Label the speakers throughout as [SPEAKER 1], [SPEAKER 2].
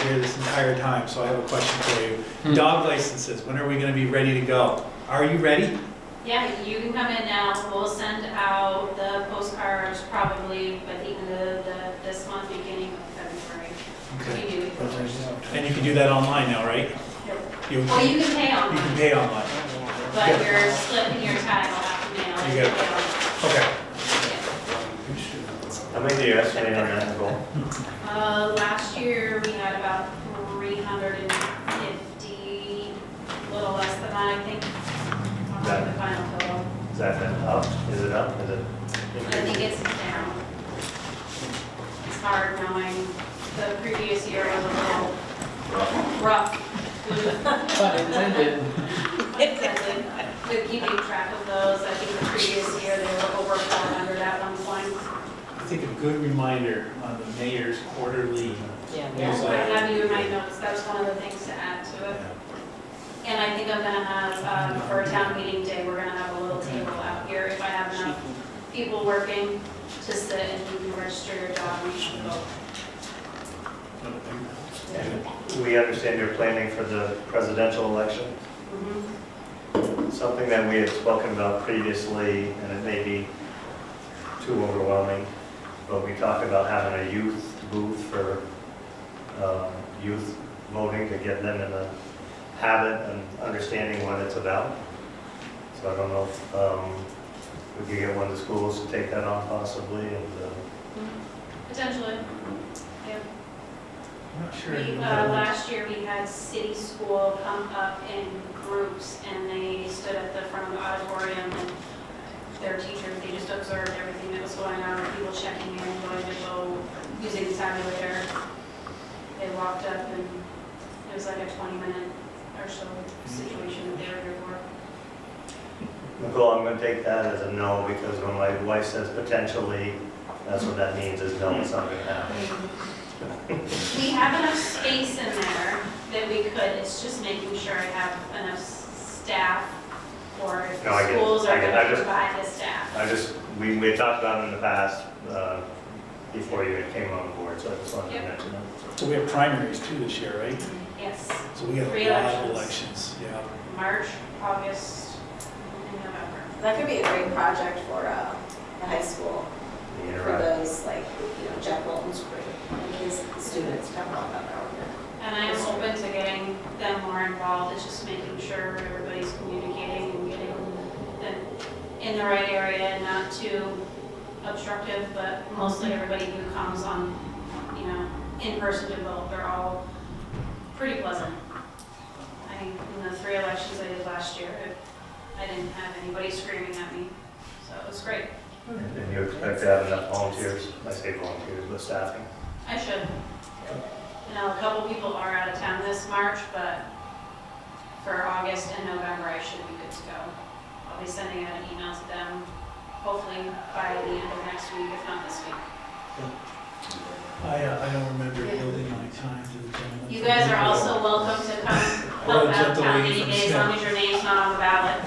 [SPEAKER 1] here this entire time, so I have a question for
[SPEAKER 2] Hmm.
[SPEAKER 1] you. Dog licenses, when are we gonna be ready to go? Are you ready?
[SPEAKER 3] Yeah, you can come in now, we'll send out the postcards probably by the end of the, this month, beginning of February.
[SPEAKER 1] Okay.
[SPEAKER 3] We do it.
[SPEAKER 1] And you can do that online now, right? You, you
[SPEAKER 3] Well, you can pay
[SPEAKER 1] can
[SPEAKER 3] online,
[SPEAKER 1] pay online.
[SPEAKER 3] but you're slipping your time, I'll have to mail.
[SPEAKER 1] You got Okay.
[SPEAKER 3] it.
[SPEAKER 4] How many do you estimate on that goal?
[SPEAKER 3] Uh, last year, we had about three hundred and fifty, a little less than that, I think, on the final total.
[SPEAKER 4] Is that been up? Is it up? Is it?
[SPEAKER 3] I think it's down. It's hard knowing the previous year was a little rough.
[SPEAKER 2] Pun intended.
[SPEAKER 3] With keeping track of those, I think the previous year they were over 400 at one point.
[SPEAKER 1] I think a good reminder on the mayor's quarterly
[SPEAKER 3] I
[SPEAKER 1] newsletter.
[SPEAKER 3] have you in my notes, that's one of the things to add to it. And I think I'm gonna have, um, for a town meeting day, we're gonna have a little table out here if I have enough people working to sit and register your dog, you should vote.
[SPEAKER 1] uh,
[SPEAKER 4] And We understand you're planning for the presidential election,
[SPEAKER 3] Mhm.
[SPEAKER 4] something that we had spoken about previously, and it may be too overwhelming, but we talked about having a youth booth for um, youth voting to get them in the habit and understanding what it's about. So I don't know if um, we could get one of the schools to take that on possibly, and uh,
[SPEAKER 3] Potentially.
[SPEAKER 1] I'm not sure.
[SPEAKER 3] We, uh, last year, we had city school come up in groups, and they stood at the front of the auditorium, and their teachers, they just observed everything that was going on, people checking in, going to go, using the tabulator. They walked up, and it was like a 20-minute or so situation that they were here for.
[SPEAKER 4] Nicole, I'm gonna take that as a no, because when my wife says potentially, that's what that means, is no, it's not gonna happen.
[SPEAKER 3] We have enough space in there that we could, it's just making sure I have enough s- staff or if
[SPEAKER 4] No, I get it.
[SPEAKER 3] schools
[SPEAKER 4] I
[SPEAKER 3] are
[SPEAKER 4] get it.
[SPEAKER 3] going
[SPEAKER 4] I
[SPEAKER 3] to
[SPEAKER 4] just-
[SPEAKER 3] provide the staff.
[SPEAKER 4] I just, we, we had talked about it in the past, uh, before you came on board, so I just wanted to
[SPEAKER 3] Yep.
[SPEAKER 4] mention that.
[SPEAKER 1] So we have primaries too this year, right?
[SPEAKER 3] Yes,
[SPEAKER 1] So we have
[SPEAKER 3] Three
[SPEAKER 1] a lot of
[SPEAKER 3] elections.
[SPEAKER 1] elections, yeah.
[SPEAKER 3] March, August, and November.
[SPEAKER 5] That could be a great project for uh, the high school,
[SPEAKER 4] The
[SPEAKER 5] for
[SPEAKER 4] interact-
[SPEAKER 5] those, like, you know, Jack Walton's group, and his students come up on that one.
[SPEAKER 3] And I'm open to getting them more involved, it's just making sure everybody's communicating and getting them in the right area, not too obstructive, but mostly everybody who comes on, you know, in person to vote, they're all pretty pleasant. I think in the three elections I did last year, I didn't have anybody screaming at me, so it was great.
[SPEAKER 4] And you expect to have enough volunteers, I say volunteers, but staffing.
[SPEAKER 3] I should. You know, a couple people are out of town this March, but for August and November, I should be good to go. I'll be sending out an email to them, hopefully by the end of next week, if not this week.
[SPEAKER 1] I, uh, I don't remember building my time to the gentleman.
[SPEAKER 3] You guys are also welcome to come help out town meeting day, as long as your name's not on the ballot.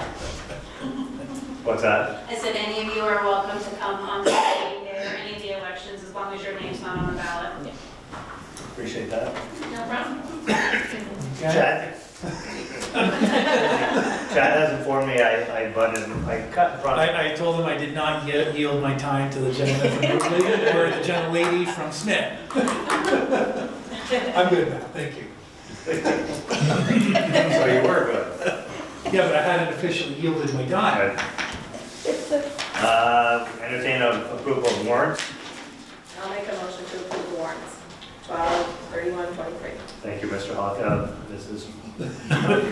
[SPEAKER 4] What's that?
[SPEAKER 3] I said, any of you are welcome to come on the meeting day or any of the elections, as long as your name's not on the ballot.
[SPEAKER 4] Appreciate that.
[SPEAKER 3] No problem.
[SPEAKER 1] Okay.
[SPEAKER 4] Chad. Chad has informed me I, I butted, I cut in front of
[SPEAKER 1] I, I told him I did not yet yield my time to the gentleman from Brooklyn or the gentlelady from Smith. I'm good now, thank you.
[SPEAKER 4] so you were good.
[SPEAKER 1] Yeah, but I hadn't officially yielded my time.
[SPEAKER 4] Uh, entertain a approval of warrants.
[SPEAKER 5] I'll make a motion to approve the warrants, 12, 31, 23.
[SPEAKER 4] Thank you, Mr. Hawk, uh, this is,
[SPEAKER 5] Gosh.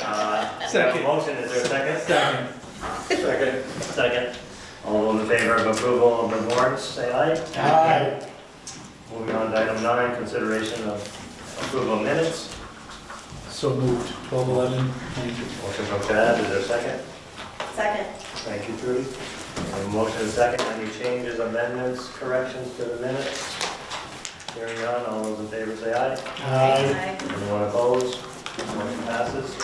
[SPEAKER 4] uh,
[SPEAKER 1] Second.
[SPEAKER 4] motion, is there a second?
[SPEAKER 1] Second.
[SPEAKER 4] Second. Second. All those in favor of approval of the warrants, say aye. Aye. Moving on to item nine, consideration of approval of minutes.
[SPEAKER 1] So moved, twelve eleven, thank you.
[SPEAKER 4] Motion from Chad, is there a second?
[SPEAKER 5] Second.
[SPEAKER 4] Thank you, Trudy. And motion is second, any changes, amendments, corrections to the minutes? Hearing none, all those in favor say aye.
[SPEAKER 5] Aye.
[SPEAKER 4] Anyone opposed? Motion passes.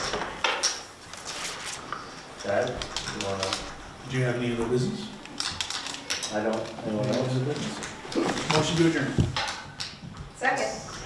[SPEAKER 4] Chad, you wanna,
[SPEAKER 1] Do you have any other business?
[SPEAKER 4] I don't, anyone else?
[SPEAKER 1] Motion to adjourn.